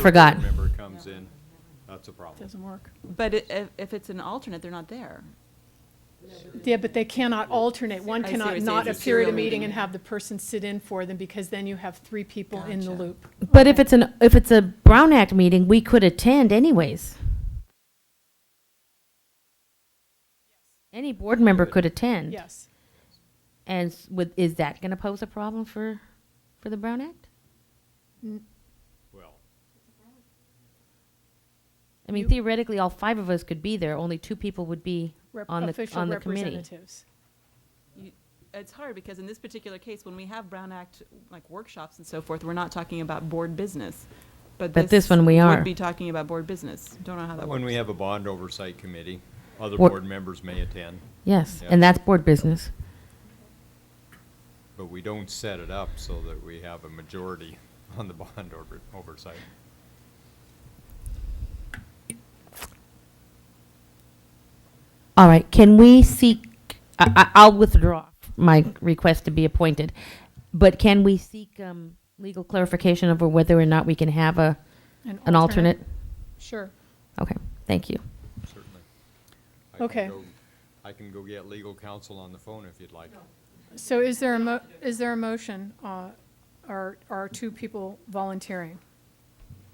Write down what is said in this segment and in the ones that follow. Forgot. board member comes in, that's a problem. Doesn't work. But i- if, if it's an alternate, they're not there. Yeah, but they cannot alternate. One I see what cannot you're not saying. It's a appear at a serial meeting meeting. and have the person sit in for them, because then you have three people in the Gotcha. loop. But if it's an, if it's a Brown Act meeting, we could attend anyways. Any board member could attend. Yes. And s- with, is that gonna pose a problem for, for the Brown Act? Well, I mean You- theoretically, all five of us could be there, only two people would be Rep- on the, official on the committee. representatives. You- It's hard because in this particular case, when we have Brown Act like workshops and so forth, we're not talking about board business. But this one we are. Would be talking about board business. Don't know how that when works. we have a bond oversight committee, other What- board members may attend, Yes, Yeah. and that's board business. but we don't set it up so that we have a majority on the bond over- oversight. All right, can we seek, I, I, I'll withdraw my request to be appointed, but can we seek, um, legal clarification over whether or not we can have a, an alternate? Sure. Okay, thank you. Certainly. I can Okay. go- I can go get legal counsel on the phone if you'd like. So is there a mo, is there a motion, uh, are, are two people volunteering?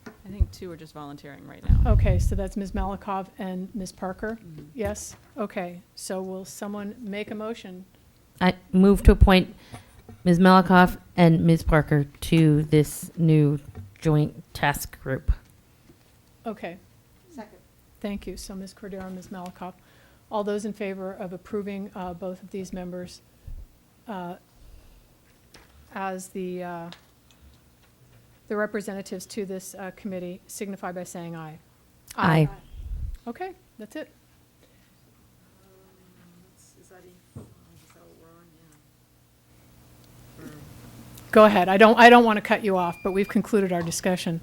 I think two are just volunteering right now. Okay, so that's Ms. Malikov and Ms. Parker? Mm-hmm. Yes? Okay, so will someone make a motion? I move to appoint Ms. Malakoff and Ms. Parker to this new joint task group. Okay. Second. Thank you. So Ms. Cordero and Ms. Malakoff, all those in favor of approving uh, both of these members uh, as the, uh, the representatives to this uh, committee signify by saying aye. Aye. Okay, that's it. Is that Go ahead. I don't, I don't want to cut you off, but we've concluded our discussion.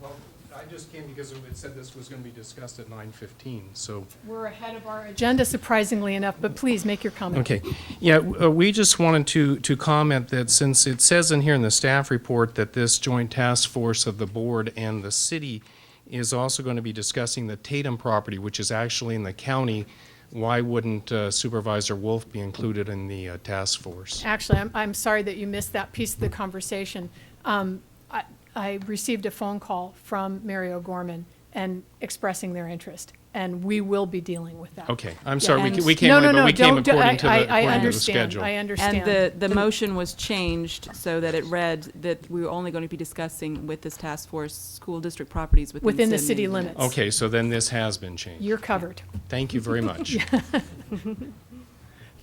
Well, I just came because it said this was going to be discussed at 9:15, so. We're ahead of our agenda surprisingly enough, but please make your comment. Okay, yeah, w- uh, we just wanted to, to comment that since it says in here in the staff report that this joint task force of the board and the city is also going to be discussing the Tatum property, which is actually in the county, why wouldn't uh, Supervisor Wolf be included in the uh, task force? Actually, I'm, I'm sorry that you missed that piece of the conversation. Um, I, I received a phone call from Mary O'Gorman and expressing their interest, and we will be dealing with that. Okay, I'm sorry, we And- ca- we came, No, late, no, but no, we came don't do- according to I- I- the, I according to the understand, schedule. I And understand. the, the motion was changed so that it read that we were only going to be discussing with this task force, school district properties within. Within the said city meeting Oh, limits. Okay, so then this has been changed. You're covered. Thank you very much.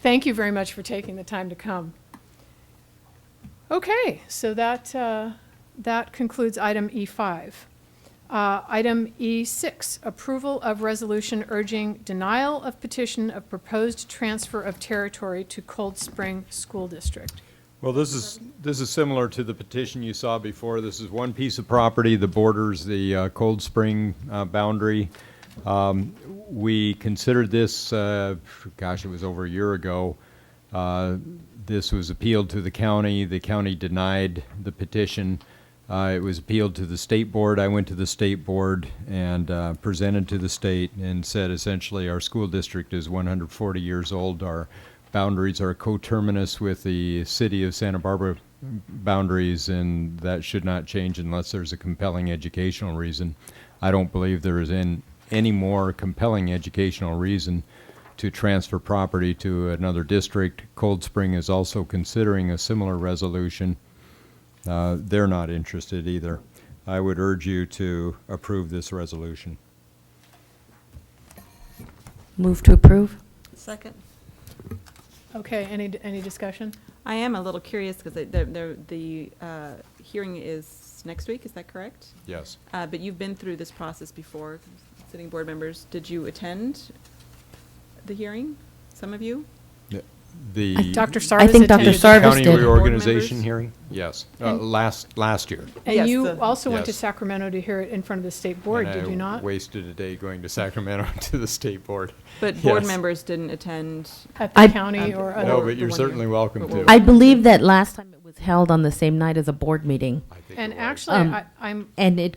Thank you very much for taking the time to come. Okay, so that, uh, that concludes item E5. Uh, Item E6, approval of resolution urging denial of petition of proposed transfer of territory to Cold Spring School District. Well, this is, this is similar to the petition you saw before. This is one piece of property that borders the uh, Cold Spring uh, boundary. Um, We considered this, uh, gosh, it was over a year ago. Uh, This was appealed to the county. The county denied the petition. Uh, It was appealed to the state board. I went to the state board and uh, presented to the state and said essentially, our school district is 140 years old. Our boundaries are coterminous with the city of Santa Barbara boundaries, and that should not change unless there's a compelling educational reason. I don't believe there is an, any more compelling educational reason to transfer property to another district. Cold Spring is also considering a similar resolution. Uh, they're not interested either. I would urge you to approve this resolution. Move to approve? Second. Okay, any, any discussion? I am a little curious because the, the, the uh, hearing is next week, is that correct? Yes. Uh, But you've been through this process before, sitting board members. Did you attend the hearing, some of you? the Dr. I Uh, Sarvis think Dr. attended. Sarvis county did. reorganization hearing? Yes, uh, And- last, last year. And Yes, you the- also went to Yes. Sacramento to hear it in front of the state board, And did I you not? Wasted a day going to Sacramento to the state board. But board Yes. members didn't attend. At the I- county Um, or No, No, but other? the you're one year. certainly welcome But we're- to. I believe that last time it was held on the same night as a board meeting, I think And it was. actually, Um, I- I'm, and it